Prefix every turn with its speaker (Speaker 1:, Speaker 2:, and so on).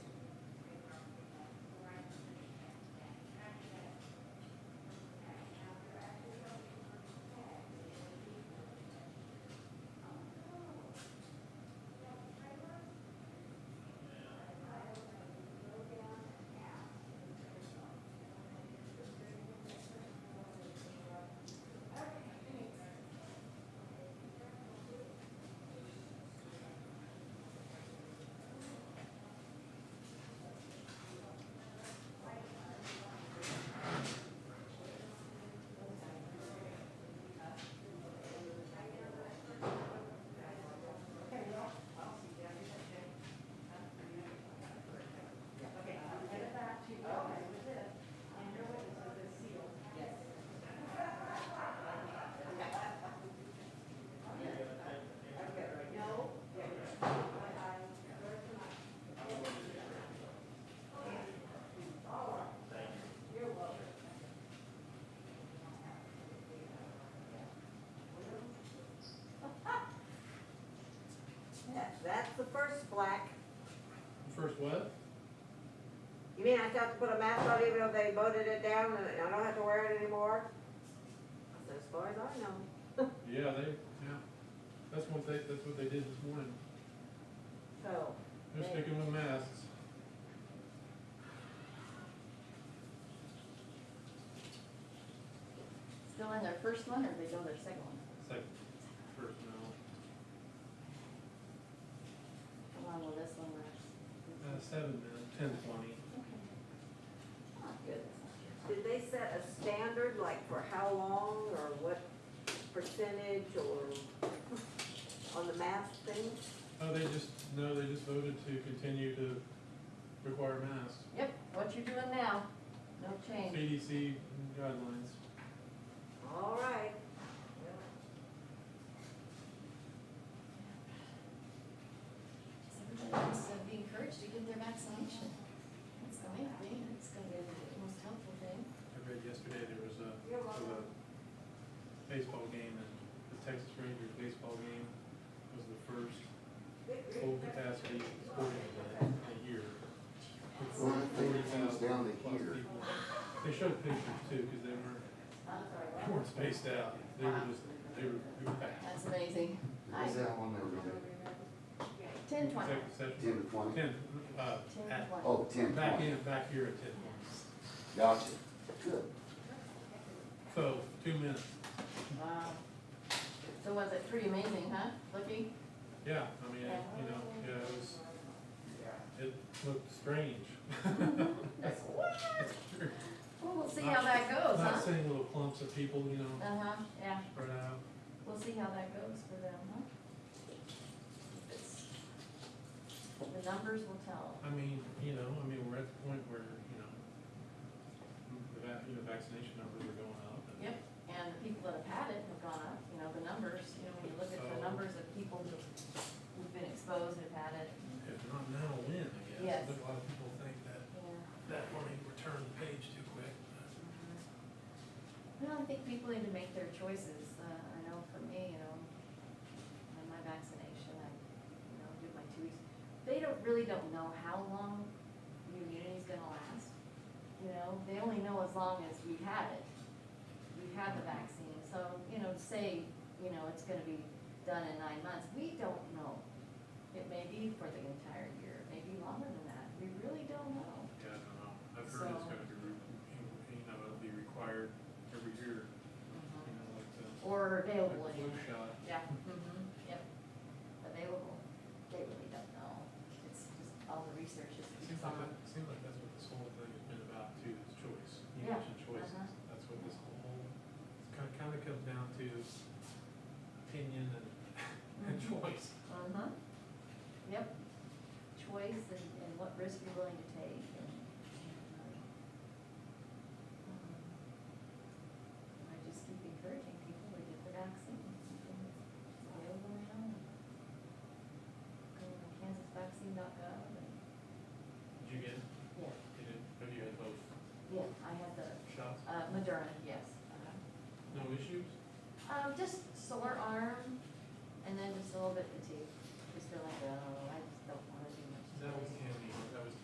Speaker 1: first black.
Speaker 2: First what?
Speaker 1: You mean I still have to put a mask on even though they voted it down and I don't have to wear it anymore? I said, as far as I know.
Speaker 2: Yeah, they, yeah, that's what they, that's what they did this morning,
Speaker 1: So,
Speaker 2: they're sticking with masks.
Speaker 3: Still in their first one, or they go their second one?
Speaker 2: It's like, first now,
Speaker 3: How long will this one last?
Speaker 2: uh, seven, then, ten, twenty.
Speaker 3: Okay. Not good, that's not
Speaker 1: did
Speaker 3: good.
Speaker 1: they set a standard, like for how long or what percentage or on the mask thing?
Speaker 2: Oh, they just, no, they just voted to continue to require masks,
Speaker 3: Yep, what you're doing now, no change.
Speaker 2: CDC guidelines.
Speaker 1: All right.
Speaker 4: Everyone's uh, being encouraged to get their vaccination. That's the main thing, that's gonna be the most helpful thing.
Speaker 2: I read yesterday there was a,
Speaker 1: You're
Speaker 2: of
Speaker 1: welcome.
Speaker 2: a baseball game, and the Texas Rangers baseball game was the first full capacity sporting event in a year.
Speaker 5: Well, I think it comes down to
Speaker 2: 40,000 plus
Speaker 5: here.
Speaker 2: people. They showed pictures too, because they weren't,
Speaker 3: I'm sorry, what?
Speaker 2: they weren't spaced out, they were just, they were, they were packed.
Speaker 3: That's amazing. I-
Speaker 5: Is that one over there?
Speaker 3: Ten twenty.
Speaker 2: Executive session,
Speaker 5: Ten to twenty?
Speaker 2: ten, uh,
Speaker 3: Ten
Speaker 2: at-
Speaker 3: twenty.
Speaker 5: Oh, ten
Speaker 2: back
Speaker 5: twenty.
Speaker 2: in, back here at ten points.
Speaker 5: Gotcha. Good.
Speaker 2: So, two minutes,
Speaker 3: Wow. So was it pretty amazing, huh? Looking,
Speaker 2: yeah, I mean, it- you know, yeah, it was, it looked strange. That's true.
Speaker 3: well, we'll see how that goes,
Speaker 2: Not
Speaker 3: huh?
Speaker 2: seeing little clumps of people, you know,
Speaker 3: Uh-huh, yeah,
Speaker 2: spread out.
Speaker 3: we'll see how that goes for them, huh? It's- The numbers will tell.
Speaker 2: I mean, you know, I mean, we're at the point where, you know, the vac, you know, vaccination numbers are going up. and-
Speaker 3: Yep, and the people that have had it have gone up, you know, the numbers, you know, when you look at the
Speaker 2: So-
Speaker 3: numbers of people who- who've been exposed, have had it,
Speaker 2: If not now, when, I guess.
Speaker 3: Yes.
Speaker 2: But A lot of people think that,
Speaker 3: yeah.
Speaker 2: that money returned the page too quick.
Speaker 3: Well, I think people need to make their choices, uh, I know for me, you know, on my vaccination, I, you know, do my two weeks. They don't, really don't know how long the immunity's gonna last, you know, they only know as long as we had it. We had the vaccine, so, you know, say, you know, it's gonna be done in nine months, we don't know. It may be for the entire year, maybe longer than that, we really don't know.
Speaker 2: Yeah, I don't know. I've heard it's
Speaker 3: So-
Speaker 2: gonna be, re- you know, it'll be required every year,
Speaker 3: Mm-hmm.
Speaker 2: you know, like the,
Speaker 3: Or
Speaker 2: like
Speaker 3: available
Speaker 2: the
Speaker 3: anyway.
Speaker 2: flu shot.
Speaker 3: Yeah. Mm-hmm, yep. Available, they really don't know, it's just all the research is
Speaker 2: It
Speaker 3: is
Speaker 2: seems like,
Speaker 3: on.
Speaker 2: that- it seems like that's what this whole thing has been about too, is choice. You
Speaker 3: Yeah,
Speaker 2: mentioned choices.
Speaker 3: uh-huh.
Speaker 2: That's what this whole, kind of, kind of comes down to is opinion and, and
Speaker 3: Mhm.
Speaker 2: choice.
Speaker 3: Uh-huh, yep, choice and, and what risk you're willing to take and. and, um, um, I just keep encouraging people to get the vaccine, it's available now. and Go to kansasvaccine.gov and,
Speaker 2: Did you get,
Speaker 3: yeah,
Speaker 2: did it, have you had both
Speaker 3: yeah, I had the,
Speaker 2: shots?
Speaker 3: uh, Moderna, yes, uh
Speaker 2: No issues?
Speaker 3: Um, just sore arm, oh,